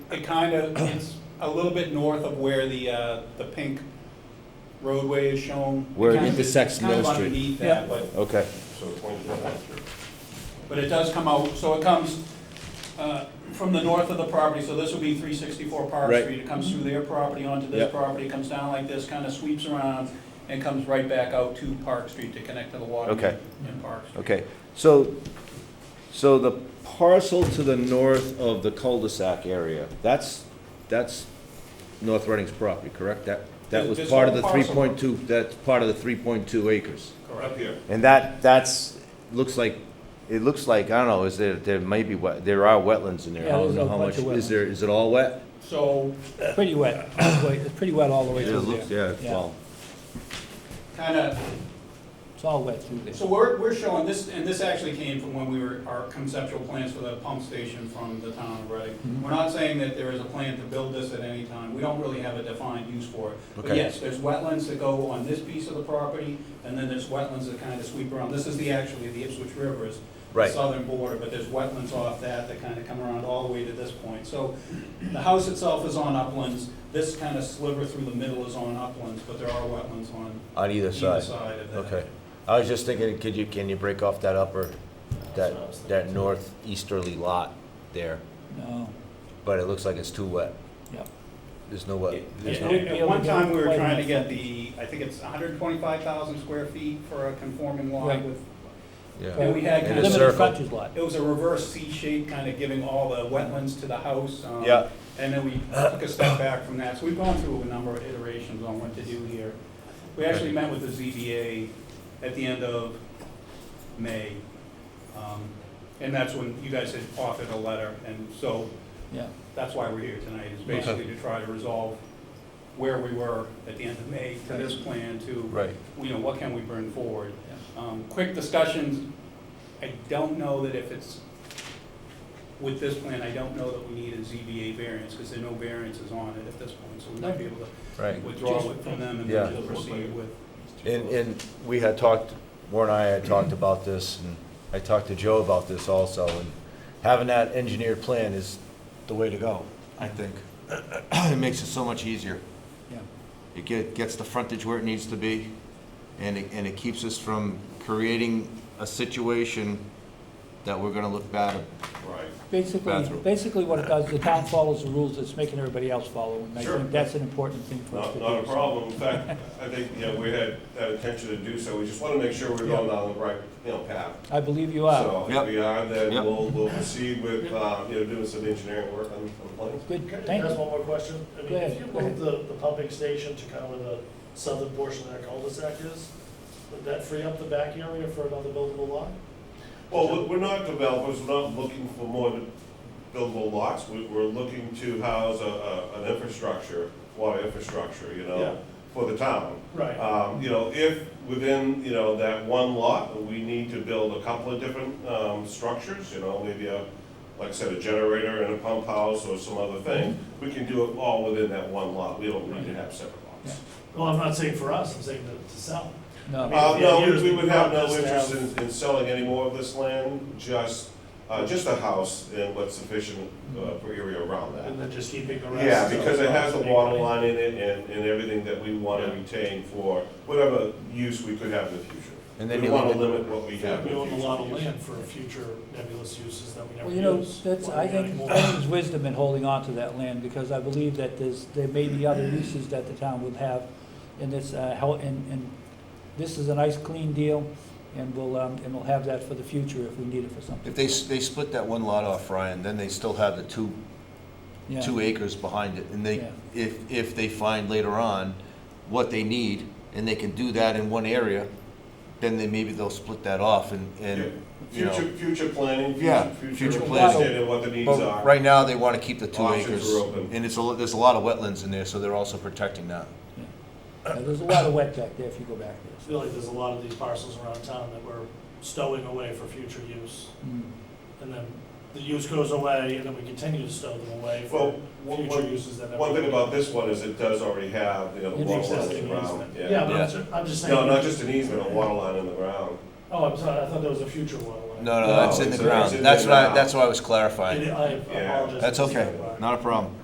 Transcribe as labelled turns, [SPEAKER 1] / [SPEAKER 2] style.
[SPEAKER 1] It kind of, it's a little bit north of where the, uh, the pink roadway is shown.
[SPEAKER 2] Where it
[SPEAKER 1] kind of-
[SPEAKER 2] intersects
[SPEAKER 1] kind of
[SPEAKER 2] Mill Street.
[SPEAKER 1] underneath that, but,
[SPEAKER 2] Okay,
[SPEAKER 3] So twenty-four hundred.
[SPEAKER 1] but it does come out, so it comes uh, from the north of the property, so this would be three sixty-four Park
[SPEAKER 2] Right.
[SPEAKER 1] Street. It comes through their property onto
[SPEAKER 2] Yep.
[SPEAKER 1] this property, comes down like this, kind of sweeps around, and comes right back out to Park Street to connect to the water.
[SPEAKER 2] Okay.
[SPEAKER 1] In Park Street.
[SPEAKER 2] okay. So, so the parcel to the north of the cul-de-sac area, that's, that's North Reading's property, correct? That, that was
[SPEAKER 1] This- this
[SPEAKER 2] part of the
[SPEAKER 1] whole
[SPEAKER 2] three
[SPEAKER 1] parcel.
[SPEAKER 2] point two, that's part of the three point two acres.
[SPEAKER 3] Up
[SPEAKER 1] Correct.
[SPEAKER 3] here.
[SPEAKER 2] And that, that's, looks like, it looks like, I don't know, is there, there may be, wet- there are wetlands in there.
[SPEAKER 4] Yeah,
[SPEAKER 2] How-
[SPEAKER 4] there's a
[SPEAKER 2] how
[SPEAKER 4] bunch of
[SPEAKER 2] much- Is there, is it all wet?
[SPEAKER 1] So
[SPEAKER 4] Pretty wet, all the way- it's pretty wet all the way
[SPEAKER 2] It
[SPEAKER 4] through
[SPEAKER 2] looks-
[SPEAKER 4] there.
[SPEAKER 2] Yeah, well,
[SPEAKER 1] kind of
[SPEAKER 4] It's all wet through there.
[SPEAKER 1] So we're, we're showing this, and this actually came from when we were, our conceptual plans for the pump station from the town of Reading.
[SPEAKER 2] Mm-hmm.
[SPEAKER 4] Mhm.
[SPEAKER 1] We're not saying that there is a plan to build this at any time, we don't really have a defined use for it. But
[SPEAKER 2] Okay.
[SPEAKER 1] yes, there's wetlands that go on this piece of the property, and then there's wetlands that kind of sweep around. This is the, actually, the Ipswich River is the
[SPEAKER 2] Right.
[SPEAKER 1] southern border, but there's wetlands off that that kind of come around all the way to this point. So the house itself is on uplands, this kind of sliver through the middle is on uplands, but there are wetlands on
[SPEAKER 2] on either
[SPEAKER 1] either
[SPEAKER 2] side.
[SPEAKER 1] side of that.
[SPEAKER 2] Okay. I was just thinking, could you, can you break off that upper, that, that northeasterly lot there?
[SPEAKER 4] No,
[SPEAKER 2] But it looks like it's too wet.
[SPEAKER 4] Yep.
[SPEAKER 2] There's no wet.
[SPEAKER 4] There's
[SPEAKER 1] Yeah,
[SPEAKER 4] no
[SPEAKER 1] At at one time, we were
[SPEAKER 4] way
[SPEAKER 1] trying to
[SPEAKER 4] back.
[SPEAKER 1] get the, I think it's 125,000 square feet for a conforming lot
[SPEAKER 4] Right.
[SPEAKER 1] with,
[SPEAKER 2] Yeah.
[SPEAKER 1] and we had
[SPEAKER 2] In
[SPEAKER 1] kind
[SPEAKER 2] a
[SPEAKER 1] of,
[SPEAKER 2] circle.
[SPEAKER 4] limited frontage lot.
[SPEAKER 1] it was a reverse C shape, kind of giving all the wetlands to the house. um,
[SPEAKER 2] Yeah.
[SPEAKER 1] And then we took a step back from that, so we've gone through a number of iterations on what to do here. We actually met with the ZBA at the end of May, um, and that's when you guys had offered a letter, and so
[SPEAKER 4] Yeah,
[SPEAKER 1] that's why we're here tonight, is basically to try to resolve where we were at the end of May to this plan to,
[SPEAKER 2] Right.
[SPEAKER 1] you know, what can we bring forward? Um, Quick discussions, I don't know that if it's, with this plan, I don't know that we need a ZBA variance, because there are no variances on it at this point, so we might be able to
[SPEAKER 2] Right.
[SPEAKER 1] withdraw it from them and
[SPEAKER 2] Yeah.
[SPEAKER 1] then proceed with.
[SPEAKER 2] And, and we had talked, Warren and I had talked about this, and I talked to Joe about this also, and having that engineered plan is the way to go, I think. It makes it so much easier.
[SPEAKER 4] yeah.
[SPEAKER 2] It get, gets the frontage where it needs to be, and it, and it keeps us from creating a situation that we're gonna look bad at
[SPEAKER 3] Right.
[SPEAKER 4] Basically,
[SPEAKER 2] Bathroom.
[SPEAKER 4] basically what it does, the town follows the rules it's making everybody else follow. And I
[SPEAKER 3] Sure.
[SPEAKER 4] think that's an important thing for us
[SPEAKER 3] Not,
[SPEAKER 4] to do.
[SPEAKER 3] not a problem. In fact, I think, you know, we had that intention to do so. We just want to make sure we're going down the right, you know, path.
[SPEAKER 4] I believe you are.
[SPEAKER 3] So
[SPEAKER 2] Yep.
[SPEAKER 3] if we are,
[SPEAKER 2] Yep.
[SPEAKER 3] then we'll, we'll proceed with, uh, you know, doing some engineering work on on the plans.
[SPEAKER 4] Good,
[SPEAKER 5] Can I
[SPEAKER 4] thank
[SPEAKER 5] ask
[SPEAKER 3] Uh,
[SPEAKER 4] you.
[SPEAKER 5] one more question? I mean,
[SPEAKER 4] Go ahead,
[SPEAKER 5] if you
[SPEAKER 4] go
[SPEAKER 5] move the, the pumping station to kind of where the southern portion of that cul-de-sac is, would that free up the back area for another buildable lot?
[SPEAKER 3] Well, we- we're not developers, we're not looking for more buildable lots. We- We're looking to house a- a, an infrastructure, water infrastructure, you
[SPEAKER 5] Yeah.
[SPEAKER 3] know, for the town.
[SPEAKER 5] Right.
[SPEAKER 3] Um, you know, if within, you know, that one lot, we need to build a couple of different, um, structures, you know, maybe a, like I said, a generator and a pump house or some other thing, we can do it all within that one lot, we don't need to have separate lots.
[SPEAKER 5] Well, I'm not saying for us, I'm saying to, to sell.
[SPEAKER 4] No,
[SPEAKER 3] Uh, no,
[SPEAKER 5] Yeah,
[SPEAKER 3] we- we would have no
[SPEAKER 5] yeah,
[SPEAKER 3] interest
[SPEAKER 5] yeah.
[SPEAKER 3] in, in selling any more of this land, just, uh, just a house and what's sufficient, uh, for area around that.
[SPEAKER 5] And then just keeping the rest.
[SPEAKER 3] Yeah, because it has a
[SPEAKER 5] the
[SPEAKER 3] water line in it and, and everything that we want to retain for whatever use we could have in the future.
[SPEAKER 2] And then
[SPEAKER 3] We
[SPEAKER 2] you
[SPEAKER 3] want
[SPEAKER 2] leave
[SPEAKER 3] to
[SPEAKER 2] it-
[SPEAKER 3] limit what we
[SPEAKER 5] We
[SPEAKER 3] have. in the
[SPEAKER 5] own a
[SPEAKER 3] future
[SPEAKER 5] lot of
[SPEAKER 3] use.
[SPEAKER 5] land for future nebulous uses that we never
[SPEAKER 4] well,
[SPEAKER 5] use.
[SPEAKER 4] you know, that's,
[SPEAKER 5] Why
[SPEAKER 4] I
[SPEAKER 5] we gotta
[SPEAKER 4] think,
[SPEAKER 5] move
[SPEAKER 4] I think
[SPEAKER 5] on?
[SPEAKER 4] there's wisdom in holding on to that land because I believe that there's, there may be other uses that the town would have in this, uh, hel- and, and this is a nice clean deal and we'll, um, and we'll have that for the future if we need it for something.
[SPEAKER 2] If they, s- they split that one lot off, Ryan, then they still have the two,
[SPEAKER 4] Yeah.
[SPEAKER 2] two acres behind it, and they,
[SPEAKER 4] Yeah.
[SPEAKER 2] if, if they find later on what they need, and they can do that in one area, then they, maybe they'll split that off and, and, you know.
[SPEAKER 3] Future, future planning,
[SPEAKER 2] Yeah,
[SPEAKER 3] future,
[SPEAKER 2] future
[SPEAKER 3] future
[SPEAKER 2] planning.
[SPEAKER 3] understanding what the needs
[SPEAKER 2] But
[SPEAKER 3] are.
[SPEAKER 2] right now, they wanna keep the two
[SPEAKER 3] Options
[SPEAKER 2] acres.
[SPEAKER 3] are open.
[SPEAKER 2] And it's a, lo- there's a lot of wetlands in there, so they're also protecting that.
[SPEAKER 4] Yeah, There's a lot of wet back there if you go back there.
[SPEAKER 5] I
[SPEAKER 4] so.
[SPEAKER 5] feel like there's a lot of these parcels around town that we're stowing away for future use.
[SPEAKER 4] Mm.
[SPEAKER 5] And then the use goes away, and then we continue to stow them away
[SPEAKER 3] Well,
[SPEAKER 5] for
[SPEAKER 3] one,
[SPEAKER 5] future
[SPEAKER 3] one-
[SPEAKER 5] uses that never.
[SPEAKER 3] one thing about this one is it does already have, you know, the
[SPEAKER 4] An
[SPEAKER 3] water line in
[SPEAKER 5] Existing
[SPEAKER 3] the ground.
[SPEAKER 5] easement. Yeah, but
[SPEAKER 2] Yeah.
[SPEAKER 5] I'm ju- I'm just saying.
[SPEAKER 3] No, not just an easement, a water line in the ground.
[SPEAKER 5] Oh, I'm sorry, I thought there was a future water line.
[SPEAKER 2] No, no,
[SPEAKER 3] No,
[SPEAKER 2] that's in the
[SPEAKER 3] it's-
[SPEAKER 2] ground,
[SPEAKER 3] it's in
[SPEAKER 2] that's
[SPEAKER 3] the
[SPEAKER 2] what I,
[SPEAKER 3] ground.
[SPEAKER 2] that's what I was
[SPEAKER 5] I I
[SPEAKER 2] clarifying.
[SPEAKER 5] apologize.
[SPEAKER 2] That's okay, not a problem.